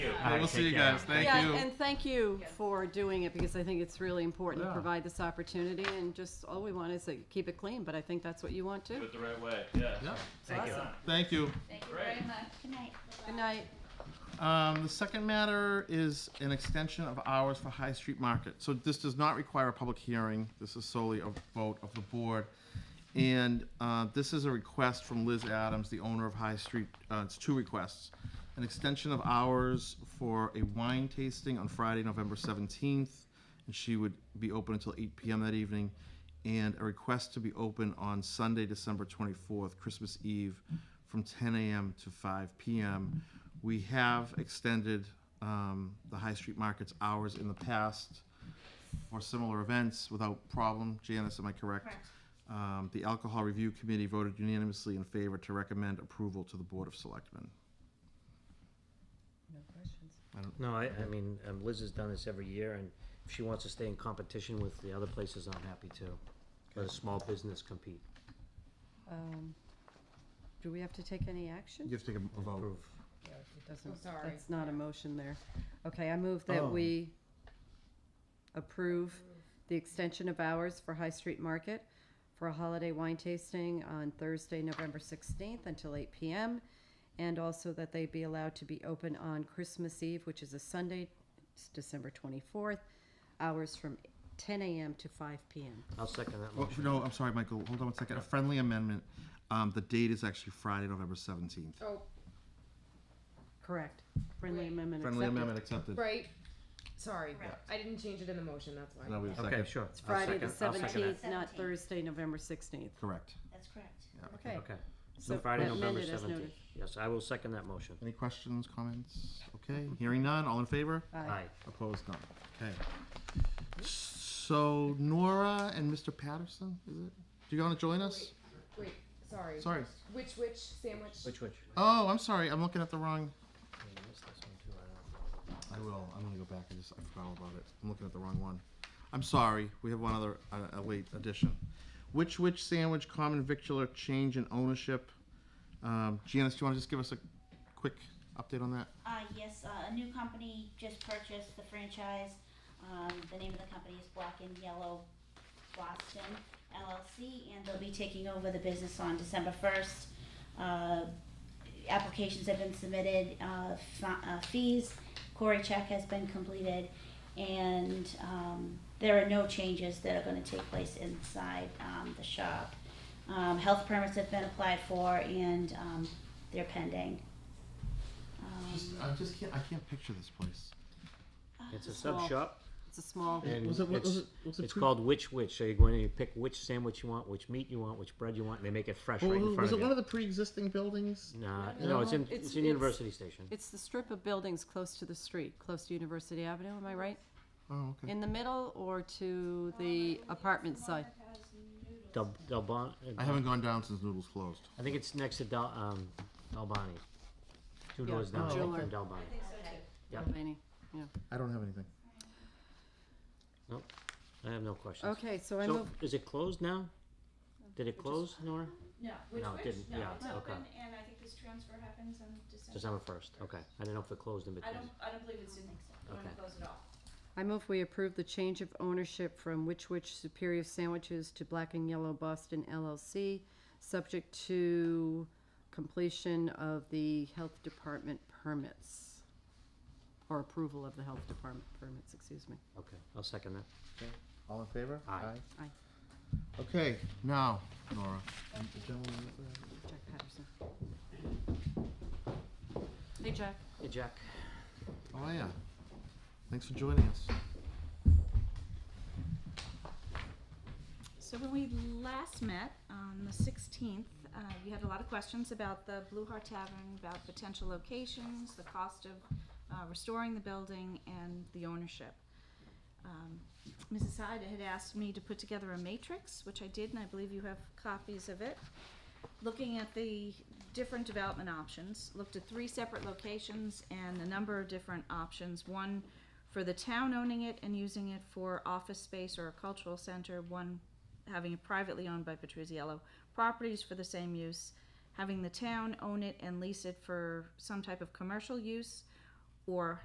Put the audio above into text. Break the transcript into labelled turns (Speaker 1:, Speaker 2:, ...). Speaker 1: Well, we'll see you guys. Thank
Speaker 2: yeah,
Speaker 1: you.
Speaker 2: and thank you for doing it because I think it's really important to
Speaker 1: Yeah.
Speaker 2: provide this opportunity. And just all we want is to keep it clean, but I think that's what you want too.
Speaker 3: Do it the right way, yeah.
Speaker 1: Yeah,
Speaker 4: Thank you.
Speaker 1: thank you.
Speaker 5: Thank you
Speaker 3: Great.
Speaker 5: very much. Good night.
Speaker 2: Good night.
Speaker 1: Um, the second matter is an extension of hours for High Street Market. So this does not require a public hearing. This is solely a vote of the board. And, uh, this is a request from Liz Adams, the owner of High Street, uh, it's two requests. An extension of hours for a wine tasting on Friday, November seventeenth, and she would be open until eight PM that evening. And a request to be open on Sunday, December twenty-fourth, Christmas Eve, from ten AM to five PM. We have extended um, the High Street Market's hours in the past for similar events without problem. Janice, am I correct?
Speaker 5: Correct.
Speaker 1: Um, The Alcohol Review Committee voted unanimously in favor to recommend approval to the Board of Selectmen.
Speaker 4: No questions.
Speaker 6: No, I, I mean, um, Liz has done this every year, and if she wants to stay in competition with the other places, I'm happy to. Let a small business compete,
Speaker 2: Um, do we have to take any action?
Speaker 1: You have to take a vote.
Speaker 6: prove.
Speaker 4: Yeah, it
Speaker 2: Doesn't-
Speaker 4: doesn't, sorry.
Speaker 2: That's not a motion there. Okay, I move that
Speaker 1: Oh.
Speaker 2: we approve the extension of hours for High Street Market for a holiday wine tasting on Thursday, November 16th until 8 PM. And also that they be allowed to be open on Christmas Eve, which is a Sunday, it's December 24th, hours from 10 AM to 5 PM.
Speaker 6: I'll second that
Speaker 1: Well,
Speaker 6: motion.
Speaker 1: Oh, no, I'm sorry, Michael, hold on one second. A friendly amendment. Um, The date is actually Friday, November seventeenth.
Speaker 4: Oh,
Speaker 2: Correct. Friendly
Speaker 4: Wait.
Speaker 2: amendment
Speaker 1: Friendly
Speaker 2: accepted.
Speaker 1: amendment accepted.
Speaker 4: right, sorry,
Speaker 5: Correct.
Speaker 4: I didn't change it in the motion, that's why.
Speaker 1: Now we have a
Speaker 6: Okay,
Speaker 1: second.
Speaker 6: sure.
Speaker 2: It's
Speaker 6: I'll
Speaker 2: Friday, the
Speaker 6: second- I'll second that.
Speaker 2: 17th, not
Speaker 5: 17th.
Speaker 2: Thursday, November 16th.
Speaker 1: Correct.
Speaker 5: That's correct.
Speaker 2: Okay.
Speaker 6: Okay, so
Speaker 2: So
Speaker 6: Friday,
Speaker 2: that
Speaker 6: November
Speaker 2: amended as noted.
Speaker 6: seventeenth. Yes, I will second that motion.
Speaker 1: Any questions, comments? Okay, hearing none, all in favor?
Speaker 6: Aye.
Speaker 1: Opposed, none. Okay. So Nora and Mr. Patterson, is it? Do you want to join us?
Speaker 4: Wait, sorry.
Speaker 1: Sorry.
Speaker 4: Which, which sandwich?
Speaker 6: Which, which?
Speaker 1: Oh, I'm sorry, I'm looking at the wrong.
Speaker 6: I missed this one too, I don't know.
Speaker 1: I will. I'm gonna go back and just, I forgot all about it. I'm looking at the wrong one. I'm sorry, we have one other, uh, a late addition. Which Which Sandwich Common Victular Change in Ownership. Um, Janice, do you wanna just give us a quick update on that?
Speaker 5: Uh, yes, uh, a new company just purchased the franchise. Um, the name of the company is Black and Yellow Boston LLC, and they'll be taking over the business on December first. Uh, applications have been submitted, uh, fa- uh, fees, query check has been completed, and, um, there are no changes that are gonna take place inside, um, the shop. Um, health permits have been applied for, and, um, they're pending. Um,
Speaker 1: Just, I just can't, I can't picture this place.
Speaker 6: It's a
Speaker 2: Ah, Small.
Speaker 6: sub shop.
Speaker 2: It's a small.
Speaker 6: And
Speaker 1: Was it- was
Speaker 6: it's,
Speaker 1: it- was it
Speaker 6: it's
Speaker 1: pre-
Speaker 6: called Which Which. So you're going to pick which sandwich you want, which meat you want, which bread you want, and they make it fresh right in front
Speaker 1: Was
Speaker 6: of you.
Speaker 1: it one of the pre-existing buildings?
Speaker 6: Nah,
Speaker 1: No,
Speaker 6: no, it's in,
Speaker 2: it's-
Speaker 6: it's in
Speaker 2: it's-
Speaker 6: University Station.
Speaker 2: It's the strip of buildings close to the street, close to University Avenue, am I right?
Speaker 1: Oh, okay.
Speaker 2: In the middle or to the apartment side?
Speaker 6: Del, Del Bon, uh,
Speaker 1: I haven't gone down since Noodles closed.
Speaker 6: I think it's next to Del, um, Del Bonte. Two
Speaker 2: Yeah,
Speaker 6: doors down
Speaker 1: Oh,
Speaker 2: okay.
Speaker 6: from Del Bonte. Yep.
Speaker 2: Laney? Yeah.
Speaker 1: I don't have anything.
Speaker 6: I have no questions.
Speaker 2: Okay, so I
Speaker 6: So,
Speaker 2: move,
Speaker 6: is it closed now? Did it close, Nora?
Speaker 7: No, which,
Speaker 6: No, it
Speaker 7: which,
Speaker 6: didn't.
Speaker 7: no,
Speaker 6: Yeah,
Speaker 7: it's
Speaker 6: okay.
Speaker 7: open, and I think this transfer happens on December.
Speaker 6: December first, okay. I didn't know if it closed in
Speaker 7: I
Speaker 6: between.
Speaker 7: don't, I don't believe it's in, going
Speaker 6: Okay.
Speaker 7: to close at all.
Speaker 2: I move we approve the change of ownership from Witch Witch Superior Sandwiches to Black and Yellow Boston LLC, subject to completion of the health department permits. Or approval of the health department permits, excuse me.
Speaker 6: Okay, I'll second that.
Speaker 1: All in favor?
Speaker 6: Aye.
Speaker 2: Aye.
Speaker 1: Okay, now, Nora.
Speaker 2: Jack Patterson. Hey, Jack.
Speaker 6: Hey, Jack.
Speaker 1: Oh, yeah. Thanks for joining us.
Speaker 7: So when we last met on the sixteenth, uh, you had a lot of questions about the Blue Heart Tavern, about potential locations, the cost of, uh, restoring the building and the ownership. Um, Mrs. Hyde had asked me to put together a matrix, which I did, and I believe you have copies of it. Looking at the different development options, looked at three separate locations and a number of different options. One for the town owning it and using it for office space or a cultural center, one having it privately owned by Petruzziello, properties for the same use, having the town own it and lease it for some type of commercial use, or